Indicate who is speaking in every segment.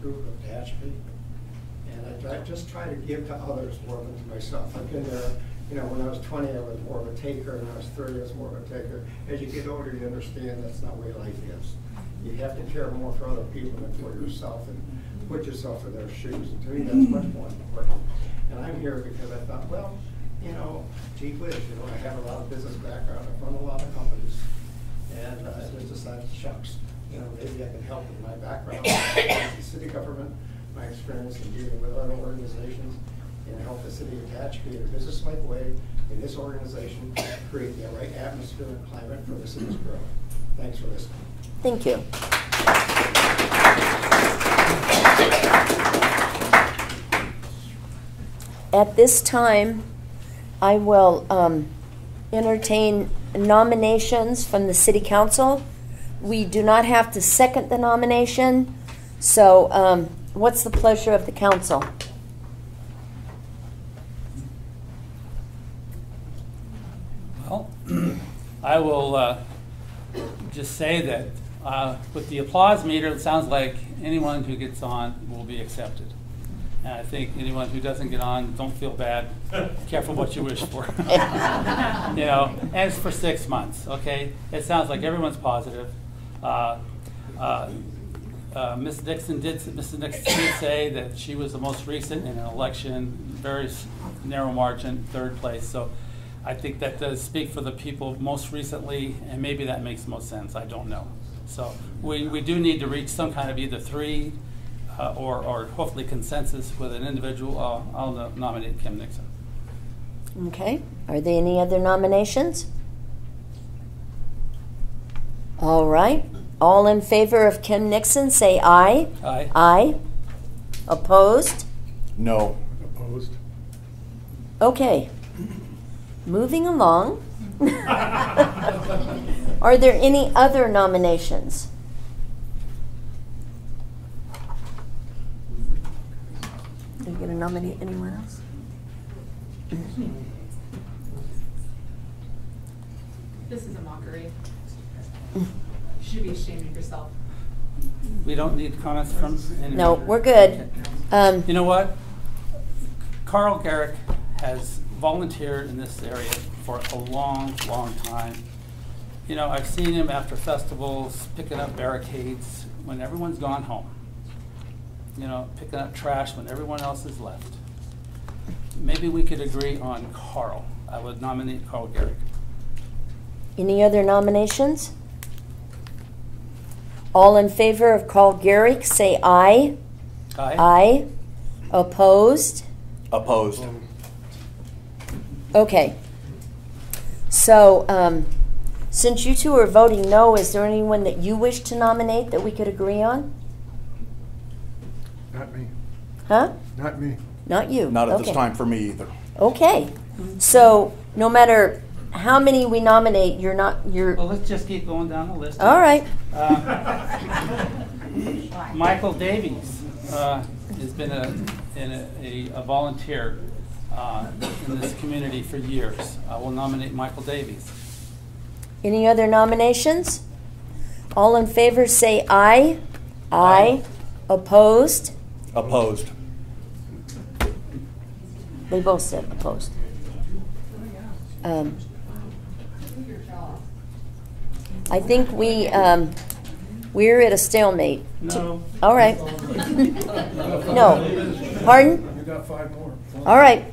Speaker 1: group of Patch people. And I try- just try to give to others more than to myself. I've been there, you know, when I was twenty, I was more of a taker, and I was thirty, I was more of a taker. As you get older, you understand that's not the way life is. You have to care more for other people than for yourself, and put yourself in their shoes. And to me, that's much more important. And I'm here because I thought, well, you know, gee whiz, you know, I have a lot of business background, I've run a lot of companies. And uh, I just decided, shucks, you know, maybe I can help with my background in city government, my experience in dealing with other organizations, and help the city of Hatch create a business-like way in this organization, create the right atmosphere and climate for the city's growth. Thanks for listening.
Speaker 2: Thank you. At this time, I will um, entertain nominations from the city council. We do not have to second the nomination, so um, what's the pleasure of the council?
Speaker 3: Well, I will uh, just say that uh, with the applause meter, it sounds like anyone who gets on will be accepted. And I think anyone who doesn't get on, don't feel bad. Careful what you wish for. You know, and it's for six months, okay? It sounds like everyone's positive. Uh, uh, uh, Ms. Dixon did, Mrs. Dixon did say that she was the most recent in an election, very s- narrow margin, third place. So I think that does speak for the people most recently, and maybe that makes most sense, I don't know. So we, we do need to reach some kind of either three uh, or, or hopefully consensus with an individual. I'll, I'll no- nominate Kim Nixon.
Speaker 2: Okay, are there any other nominations? All right, all in favor of Kim Nixon, say aye.
Speaker 3: Aye.
Speaker 2: Aye. Opposed?
Speaker 4: No.
Speaker 5: Opposed?
Speaker 2: Okay. Moving along. Are there any other nominations? Are you going to nominate anyone else?
Speaker 6: This is a mockery. You should be ashamed of yourself.
Speaker 3: We don't need comments from anyone?
Speaker 2: No, we're good. Um,
Speaker 3: You know what? Carl Garrick has volunteered in this area for a long, long time. You know, I've seen him after festivals picking up barricades when everyone's gone home. You know, picking up trash when everyone else has left. Maybe we could agree on Carl. I would nominate Carl Garrick.
Speaker 2: Any other nominations? All in favor of Carl Garrick, say aye.
Speaker 3: Aye?
Speaker 2: Aye. Opposed?
Speaker 4: Opposed.
Speaker 2: Okay. So, um, since you two are voting no, is there anyone that you wish to nominate that we could agree on?
Speaker 5: Not me,
Speaker 2: Huh?
Speaker 5: not me.
Speaker 2: Not you?
Speaker 4: Not at this
Speaker 2: Okay.
Speaker 4: time for me either.
Speaker 2: Okay. So, no matter how many we nominate, you're not, you're,
Speaker 3: Well, let's just keep going down the list.
Speaker 2: all right.
Speaker 3: Uh, Michael Davies uh, has been a, in a- a volunteer uh, in this community for years. I will nominate Michael Davies.
Speaker 2: Any other nominations? All in favor, say aye. Aye.
Speaker 3: Aye.
Speaker 2: Opposed?
Speaker 4: Opposed.
Speaker 2: They both said opposed. Um, I think we, um, we're at a stalemate.
Speaker 3: No.
Speaker 2: All right. No. Pardon?
Speaker 5: You got five more.
Speaker 2: All right.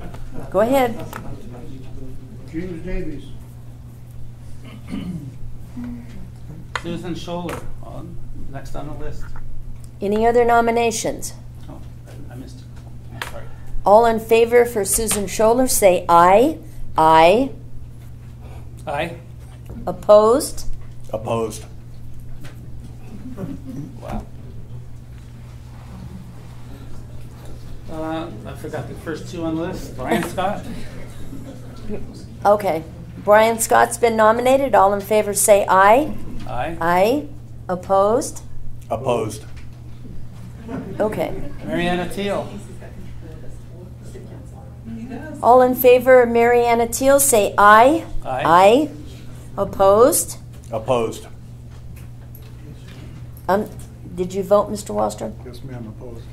Speaker 2: Go ahead.
Speaker 5: James Davies.
Speaker 3: Susan Scholler, on- next on the list.
Speaker 2: Any other nominations?
Speaker 3: Oh, I missed it. I'm Sorry.
Speaker 2: All in favor for Susan Scholler, say aye. Aye.
Speaker 3: Aye?
Speaker 2: Opposed?
Speaker 4: Opposed.
Speaker 3: Wow. Uh, I forgot the first two on the list. Brian Scott?
Speaker 2: Okay. Brian Scott's been nominated. All in favor, say aye.
Speaker 3: Aye.
Speaker 2: Aye. Opposed?
Speaker 4: Opposed.
Speaker 2: Okay.
Speaker 3: Mariana Teal?
Speaker 2: All in favor of Mariana Teal, say aye.
Speaker 3: Aye.
Speaker 2: Opposed?
Speaker 4: Opposed.
Speaker 2: Um,
Speaker 7: Did you vote, Mr. Wallstrom?
Speaker 2: Yes, ma'am, opposed.